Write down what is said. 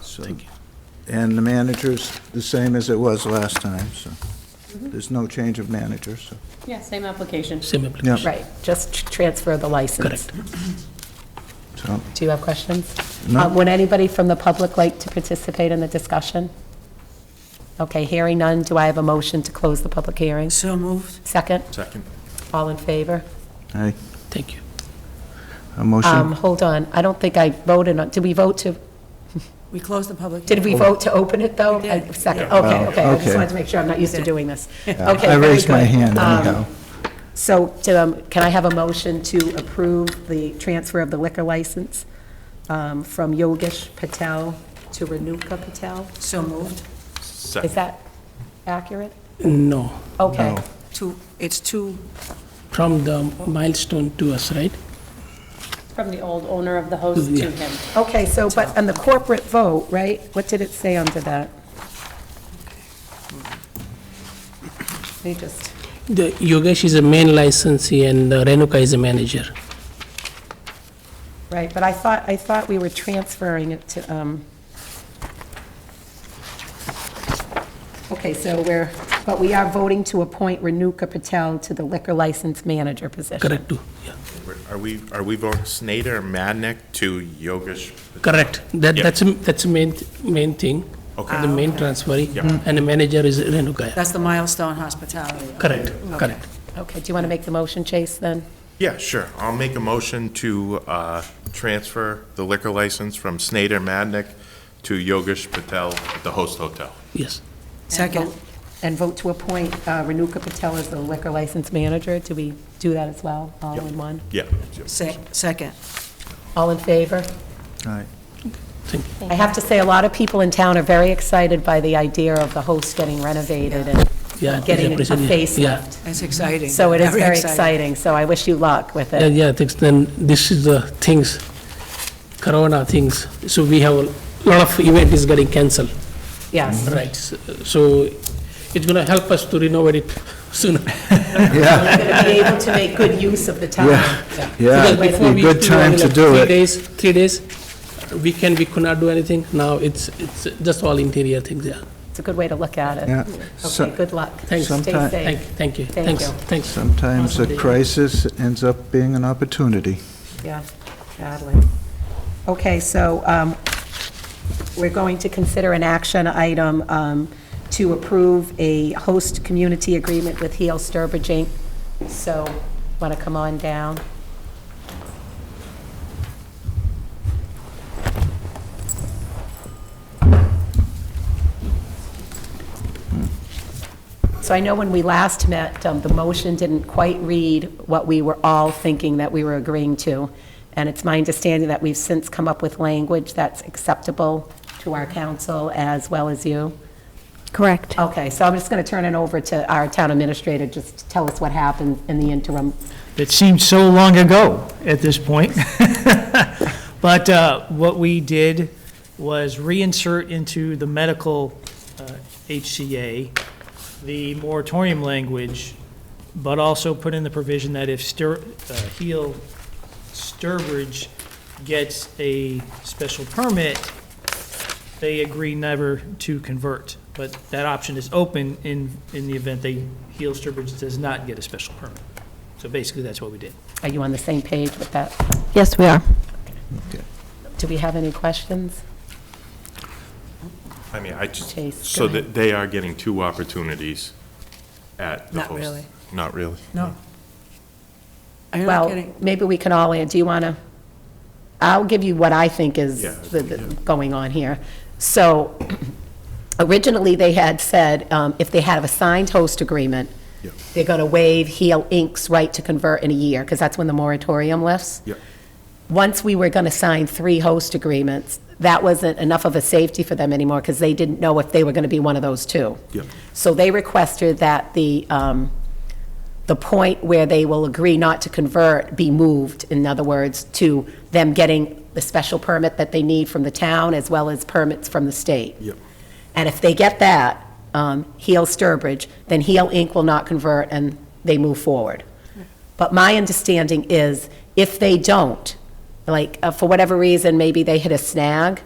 so- And the manager's the same as it was last time, so there's no change of manager, so. Yeah, same application. Same Yeah. application. Right, just tr- transfer the license. Correct. so, Do you have questions? No. Uh, Would anybody from the public like to participate in the discussion? Okay, hearing none, do I have a motion to close the public hearing? So moved. Second? Second. All in favor? aye. Thank you. A Um, motion? hold on, I don't think I voted on, did we vote to, We closed the public. did we vote to open it, though? We did. Uh, Second, Yeah. okay, Oh, okay, I just okay. wanted to make sure, I'm not used to doing this. Yeah, Okay, I very raised my good. hand Um, anyhow. So, um, can I have a motion to approve the transfer of the liquor license um, from Yogesh Patel to Renuka Patel? So moved. Second. Is that accurate? No, Okay. Two, it's two, from the milestone to us, right? From the old owner of the host to Yeah. him. Okay, so, but on the corporate vote, right, what did it say under that? Let me just, The Yogesh is a main licensee and uh, Renuka is a manager. right, but I thought, I thought we were transferring it to, um, okay, so we're, but we are voting to appoint Renuka Patel to the liquor license manager position. Correct, too. Yeah. Are we, are we voting Snyder or Madnick to Yogesh? Correct. That, Yeah. that's, a- that's the main, main thing. Okay. The main transfer. Yeah. And the manager is Renuka. that's the milestone hospitality. Correct, correct. Okay, do you want to make the motion, Chase, then? Yeah, sure. I'll make a motion to uh, transfer the liquor license from Snyder Madnick to Yogesh Patel at the Host Hotel. Yes. Second. And vote to appoint uh, Renuka Patel as the liquor license manager. Do we do that as well, all in one? Yeah. Se- Second. All in favor? Aye. Thank you. I have to say, a lot of people in town are very excited by the idea of the host getting renovated and Yeah, it's getting a appreciated. Yeah. facelift. It's exciting. So it is very exciting. exciting, so I wish you luck with Yeah, it. yeah, thanks, then this is the things, Corona things, so we have, a lot of event is getting cancelled, Mm-hmm. Yes. right? s- So it's gonna help us to renovate it sooner. Yeah, Going to be able to make good use of the time. yeah, Because it'd before be we a used good do time only to like do Three it. days, three days, weekend we could not do anything, now it's, it's just all interior things, yeah. It's a good way to look at it. Yeah. So- Okay, good luck. Thanks. Stay Sometime- Thank, safe. thank you, Thank thanks, you. thanks. Sometimes a crisis ends up being an opportunity. Yeah, badly. Okay, so um, we're going to consider an action item um, to approve a host community agreement with Heel Sturbridge Inc. So, want to come on down? So I know when we last met, um, the motion didn't quite read what we were all thinking that we were agreeing to, and it's my understanding that we've since come up with language that's acceptable to our council as well as you. Correct. Okay, so I'm just going to turn it over to our town administrator, just to tell us what happened in the interim. It seems so long ago at this point. But uh, what we did was reinsert into the medical uh, HCA the moratorium language, but also put in the provision that if Stur- uh, Heal Sturbridge gets a special permit, they agree never to convert. But that option is open in, in the event they, Heal Sturbridge does not get a special permit. So basically, that's what we did. Are you on the same page with that? Yes, we are. Do we have any questions? I mean, I just, Chase, go so ahead. that they are getting two opportunities at the Not Host. really. Not really? No. Are you not Well, kidding? maybe we can all, an- do you want to, I'll give you what I think is Yeah, the- the- going on here. So originally, they had said, um, if they had a signed host agreement, Yeah. they're going to waive Heal Inc.'s right to convert in a year, because that's when the moratorium lifts. Yeah. Once we were going to sign three host agreements, that wasn't enough of a safety for them anymore, because they didn't know if they were going to be one of those two. Yeah. So they requested that the, um, the point where they will agree not to convert be moved, in other words, to them getting the special permit that they need from the town as well as permits from the state. Yep. And if they get that, um, Heal Sturbridge, then Heal Inc. will not convert and they move forward. But my understanding is if they don't, like, uh, for whatever reason, maybe they hit a snag,